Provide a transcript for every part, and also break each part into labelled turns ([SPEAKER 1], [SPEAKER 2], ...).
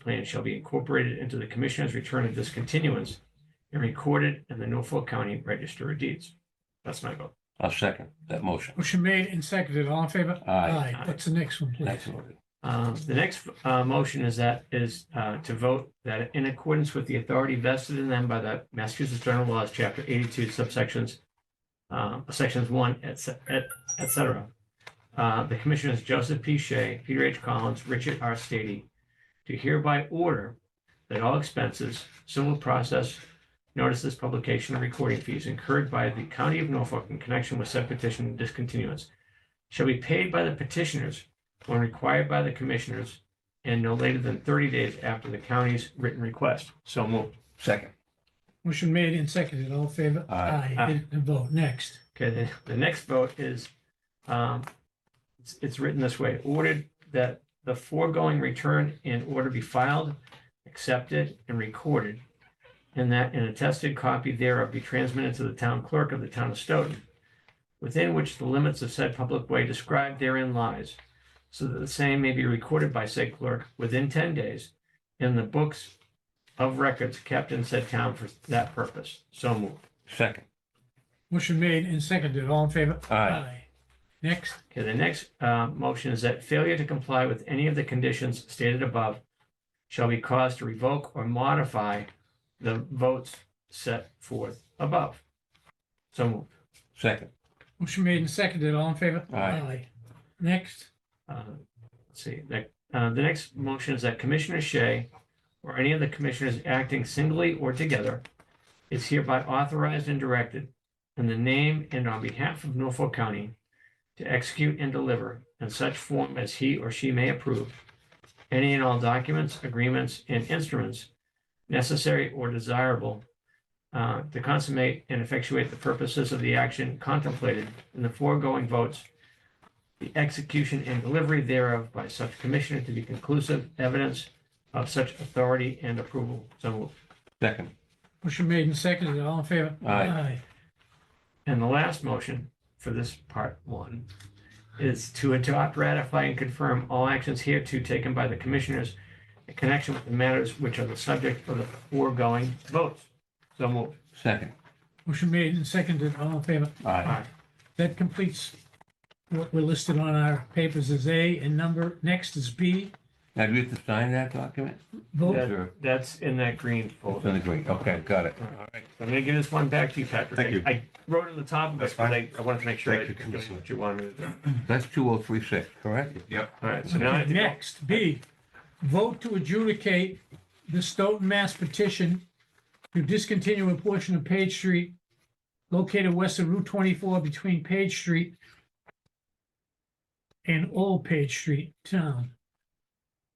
[SPEAKER 1] plan shall be incorporated into the commissioner's return of discontinuance and recorded in the Norfolk County Register of Deeds. That's my vote.
[SPEAKER 2] I'll second that motion.
[SPEAKER 3] Motion made and seconded. All in favor?
[SPEAKER 2] Aye.
[SPEAKER 3] What's the next one, please?
[SPEAKER 2] Next one.
[SPEAKER 1] Um, The next uh, motion is that, is uh, to vote that in accordance with the authority vested in them by the Massachusetts General Laws, Chapter 82, subsections, uh, Sections 1, et cet- et et cetera. Uh, The Commissioners Joseph P. Shea, Peter H. Collins, Richard R. Stady, to hereby order that all expenses, civil process, notices, publication, and recording fees incurred by the County of Norfolk in connection with said petition discontinuance shall be paid by the petitioners when required by the commissioners and no later than thirty days after the county's written request. So moved.
[SPEAKER 2] Second.
[SPEAKER 3] Motion made and seconded. All in favor?
[SPEAKER 2] Aye.
[SPEAKER 3] Aye. And vote. Next.
[SPEAKER 1] Okay, the, the next vote is, um, it's, it's written this way, ordered that the foregoing return and order be filed, accepted, and recorded, and that an attested copy thereof be transmitted to the town clerk of the town of Stoughton, within which the limits of said public way described therein lies, so that the same may be recorded by said clerk within ten days in the books of records kept in said town for that purpose. So moved.
[SPEAKER 2] Second.
[SPEAKER 3] Motion made and seconded. All in favor?
[SPEAKER 2] Aye.
[SPEAKER 3] Next.
[SPEAKER 1] Okay, the next uh, motion is that failure to comply with any of the conditions stated above shall be caused to revoke or modify the votes set forth above. So moved.
[SPEAKER 2] Second.
[SPEAKER 3] Motion made and seconded. All in favor?
[SPEAKER 2] Aye.
[SPEAKER 3] Next.
[SPEAKER 1] Uh, Let's see, that, uh, the next motion is that Commissioner Shea or any of the commissioners acting singly or together is hereby authorized and directed in the name and on behalf of Norfolk County to execute and deliver in such form as he or she may approve any and all documents, agreements, and instruments necessary or desirable uh, to consummate and effectuate the purposes of the action contemplated in the foregoing votes the execution and delivery thereof by such commissioner to be conclusive evidence of such authority and approval. So moved.
[SPEAKER 2] Second.
[SPEAKER 3] Motion made and seconded. All in favor?
[SPEAKER 2] Aye.
[SPEAKER 1] And the last motion for this part one is to adopt, ratify, and confirm all actions hereto taken by the commissioners in connection with the matters which are the subject of the foregoing votes. So moved.
[SPEAKER 2] Second.
[SPEAKER 3] Motion made and seconded. All in favor?
[SPEAKER 2] Aye.
[SPEAKER 3] That completes what we're listed on our papers as A and number. Next is B.
[SPEAKER 2] Now, do we have to sign that document?
[SPEAKER 3] Vote.
[SPEAKER 1] Yeah.
[SPEAKER 2] Sure.
[SPEAKER 1] That's in that green
[SPEAKER 2] It's
[SPEAKER 1] folder.
[SPEAKER 2] in the green. Okay, got it.
[SPEAKER 1] All right. I'm going to give this one back to you, Patrick.
[SPEAKER 4] Thank you.
[SPEAKER 1] I wrote it on the top of it,
[SPEAKER 4] That's
[SPEAKER 1] but I
[SPEAKER 4] fine.
[SPEAKER 1] I wanted to make sure
[SPEAKER 4] Thank
[SPEAKER 1] that
[SPEAKER 4] you,
[SPEAKER 1] you're doing
[SPEAKER 4] Commissioner.
[SPEAKER 1] what you wanted me to do.
[SPEAKER 2] That's two oh three six, correct?
[SPEAKER 4] Yep.
[SPEAKER 1] All right, so now I have to go-
[SPEAKER 3] Next, B, vote to adjudicate the Stoughton, Mass petition to discontinue a portion of Page Street located west of Route twenty-four between Page Street and Old Page Street Town.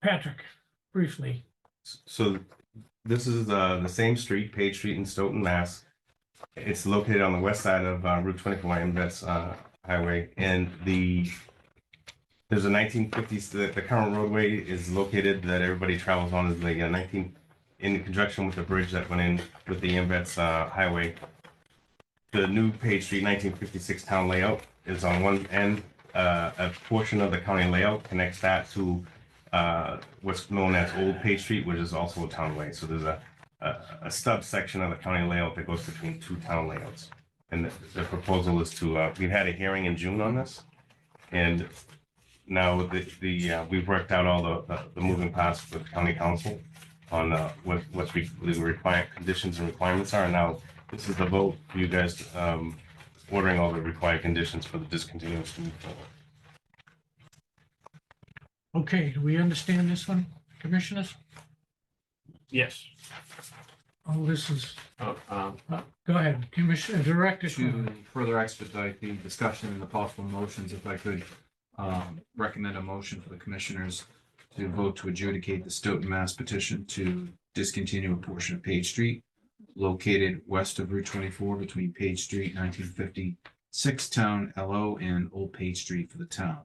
[SPEAKER 3] Patrick, briefly,
[SPEAKER 4] So this is uh, the same street, Page Street in Stoughton, Mass. It's located on the west side of uh, Route 24, and that's uh, highway. And the, there's a 1950s, the the current roadway is located that everybody travels on is the uh, 19, in conjunction with the bridge that went in with the Embets uh, Highway. The new Page Street 1956 town layout is on one end. Uh, A portion of the county layout connects that to uh, what's known as Old Page Street, which is also a town way. So there's a, a, a stub section of the county layout that goes between two town layouts. And the, the proposal is to, uh, we had a hearing in June on this. And now the, the, uh, we've worked out all the- the, the moving parts with county council on, uh, what, what's re- the requirement, conditions and requirements are. Now, this is the vote, for you guys, um, ordering all the required conditions for the discontinuance to move forward.
[SPEAKER 3] okay, do we understand this one, commissioners?
[SPEAKER 1] Yes.
[SPEAKER 3] Oh, this is,
[SPEAKER 1] Oh, um,
[SPEAKER 3] uh, go ahead, Commissioner, Director.
[SPEAKER 5] To further expedite the discussion and the possible motions, if I could um, recommend a motion for the commissioners to vote to adjudicate the Stoughton, Mass petition to discontinue a portion of Page Street located west of Route twenty-four between Page Street, nineteen fifty-six Town LO and Old Page Street for the town.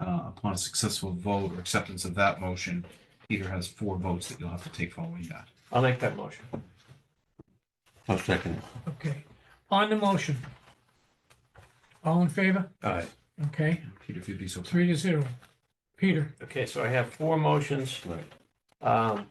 [SPEAKER 5] Uh, Upon a successful vote or acceptance of that motion, Peter has four votes that you'll have to take following that.
[SPEAKER 1] I'll make that motion.
[SPEAKER 2] I'll second it.
[SPEAKER 3] Okay, on the motion. All in favor?
[SPEAKER 2] Aye.
[SPEAKER 3] Okay,
[SPEAKER 5] Peter, if you'd be so.
[SPEAKER 3] three to zero. Peter,
[SPEAKER 1] Okay, so I have four motions.
[SPEAKER 2] Right.
[SPEAKER 1] Um,